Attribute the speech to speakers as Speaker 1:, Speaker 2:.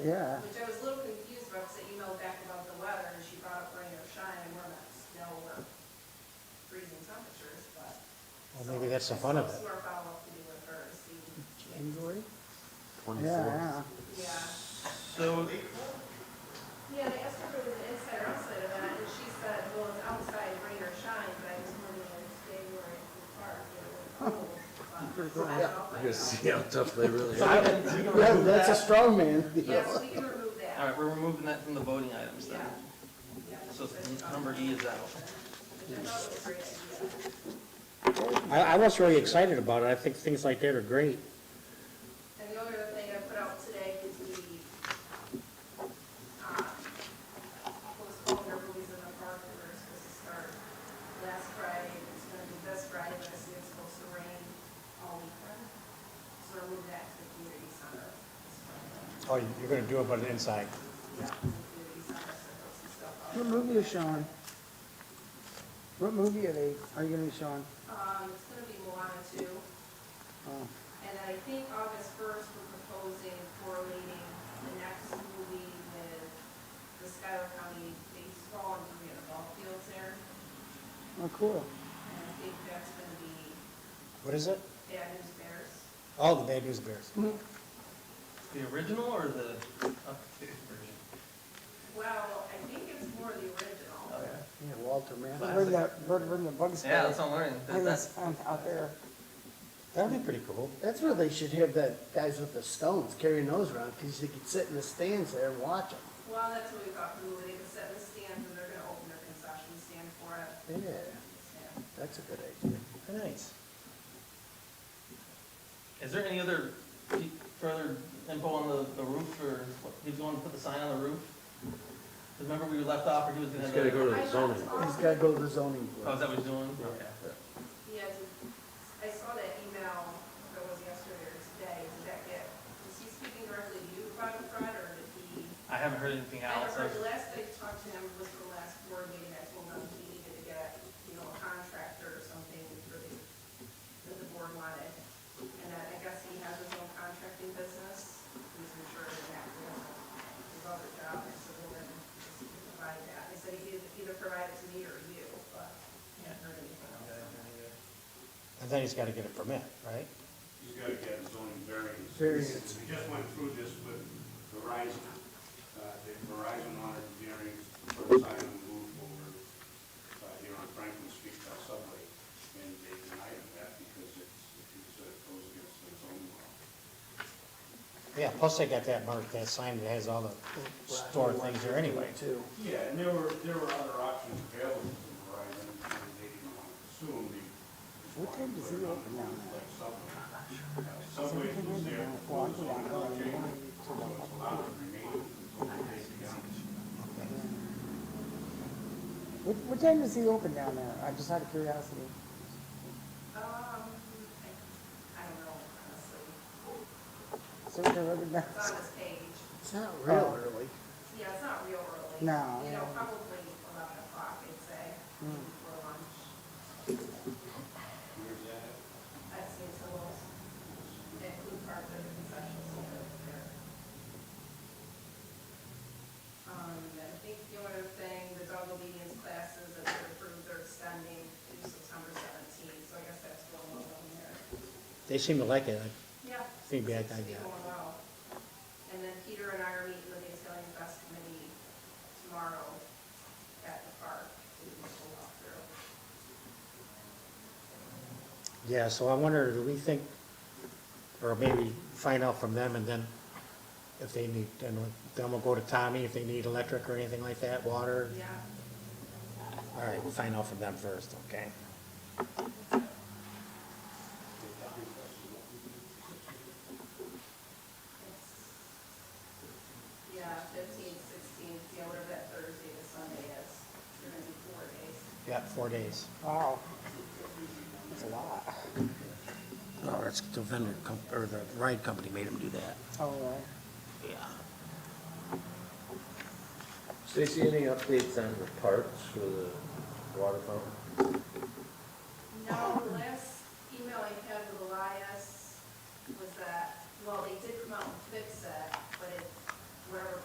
Speaker 1: yeah.
Speaker 2: Which I was a little confused about, because I emailed back about the weather, and she brought up rain or shine, and we're not, snow we're freezing temperatures, but.
Speaker 3: Well, maybe that's the fun of it.
Speaker 2: So our follow-up to do with her, see,
Speaker 1: January?
Speaker 4: Twenty-four.
Speaker 1: Yeah,
Speaker 2: yeah.
Speaker 5: So,
Speaker 2: Yeah, they asked her if it was an inside or outside event, and she said, well, it's outside, rain or shine, but I just wanted to stay where it's park, you know, cold. but I don't know if I
Speaker 4: You're gonna see how tough they really are.
Speaker 5: I can- we can
Speaker 1: yeah. That-
Speaker 5: remove
Speaker 1: that's a
Speaker 5: that.
Speaker 1: strong man.
Speaker 2: know. Yes, we can remove that.
Speaker 5: All right, we're removing that from the voting items then.
Speaker 2: Yeah. Yeah.
Speaker 5: So number E is out.
Speaker 2: Which I thought was a great idea.
Speaker 3: I, I was really excited about it. I think things like that are great.
Speaker 2: And the only other thing I put out today is the, um, postponed movies in the park that were supposed to start last Friday, it's gonna be this Friday, but I see it's supposed to rain all weekend. So I moved that to the community center. this Friday.
Speaker 3: Oh, you're gonna do it, but inside.
Speaker 2: Yeah, the community center, so those and stuff.
Speaker 1: What movie is showing? What movie are they, are you gonna be showing?
Speaker 2: Um, it's gonna be Moana two.
Speaker 1: Oh,
Speaker 2: And I think August first, we're proposing correlating the next movie with the Skyler County baseball and we have ball fields there.
Speaker 1: oh, cool.
Speaker 2: And I think that's gonna be
Speaker 3: What is it?
Speaker 2: Bad News Bears.
Speaker 3: Oh, the Bad News Bears.
Speaker 5: The original or the updated version?
Speaker 2: Well, I think it's more the original.
Speaker 5: Oh,
Speaker 1: Yeah, Walter, man.
Speaker 5: Classic.
Speaker 1: Where'd that, bird where'd the bugs
Speaker 5: yeah.
Speaker 1: go?
Speaker 5: Yeah, that's what I'm learning.
Speaker 1: Where
Speaker 5: That-
Speaker 1: that's
Speaker 5: That's,
Speaker 1: found out there.
Speaker 3: That'd be pretty cool.
Speaker 1: That's where they should have that, guys with the stones carrying those around, because you could sit in the stands there and watch them.
Speaker 2: Well, that's what we thought the movie, they could set in the stands and they're gonna open their concession stand for it.
Speaker 1: Yeah,
Speaker 2: Yeah.
Speaker 1: that's a good idea.
Speaker 3: Nice.
Speaker 5: is there any other pe- further info on the, the roof or what- he was going to put the sign on the roof? 'Cause Remember we left off or he was gonna.
Speaker 4: Just gotta go to
Speaker 2: I
Speaker 4: the
Speaker 2: thought
Speaker 4: zoning.
Speaker 1: He's
Speaker 2: also-
Speaker 1: gotta go to the zoning
Speaker 5: Oh, is
Speaker 1: board.
Speaker 5: that what he's doing? Okay.
Speaker 2: Yeah, I saw that email that was yesterday or today, did that get, is he speaking directly to you, Fred, Fred, or did he?
Speaker 5: I haven't heard anything
Speaker 2: I
Speaker 5: else.
Speaker 2: heard the last I talked to him was the last board meeting, I told him he needed to get, you know, a contractor or something for the, that the board wanted. And then I guess he has his own contracting business, he's insured in that, you know, his other job, and so we'll then just provide that. He said he either- either provide it to me or you, but I haven't heard anything else.
Speaker 3: And then he's gotta get a permit, right?
Speaker 6: He's gotta get his own variance.
Speaker 1: Variance.
Speaker 6: We just went through this with Verizon. Uh, the Verizon honored variance for the sign on the roof over, uh, here on Franklin Street by Subway. And they denied him that because it's, it's, uh, goes against the zoning law.
Speaker 3: Yeah, plus they got that mark, that sign that has all the store things there anyway.
Speaker 1: Too.
Speaker 6: Yeah, and there were, there were other options available to Verizon, and they didn't want to pursue them. They
Speaker 1: What time does it open now?
Speaker 6: Like Subway. Uh, Subway was there, was on LJ, so it's allowed to remain until they began.
Speaker 1: What, what time does he open down there? I just out of curiosity.
Speaker 2: Um, I, I don't know, honestly,
Speaker 1: Certain or other
Speaker 2: it's on his page.
Speaker 1: It's not real early.
Speaker 2: Yeah, it's not real early.
Speaker 1: No.
Speaker 2: You know, probably eleven o'clock, I'd say, for lunch. That seems a little, that food part of the concession stand over there. Um, and I think the other thing, the dog obedience classes that they're approved, they're extending to September seventeenth, so I guess that's going well on there.
Speaker 3: They seem to like it.
Speaker 2: Yeah.
Speaker 3: Think back,
Speaker 2: Seems to be
Speaker 3: I-
Speaker 2: going well. And then Peter and I are meeting with the Italian Fest Committee tomorrow at the park to do a walkthrough.
Speaker 3: Yeah, so I wonder, do we think, or maybe find out from them and then if they need, then we'll- then we'll go to Tommy if they need electric or anything like that, water.
Speaker 2: Yeah.
Speaker 3: All right, we'll find out from them first, okay?
Speaker 2: Yeah, fifteen, sixteen, yeah, whatever that Thursday to Sunday is, it's gonna be four days.
Speaker 3: Yeah, four days.
Speaker 1: Wow. That's a lot.
Speaker 3: Oh, that's the vendor, com- or the ride company made him do that.
Speaker 1: All right.
Speaker 3: Yeah.
Speaker 4: Stacy, any updates on the parts for the water fountain?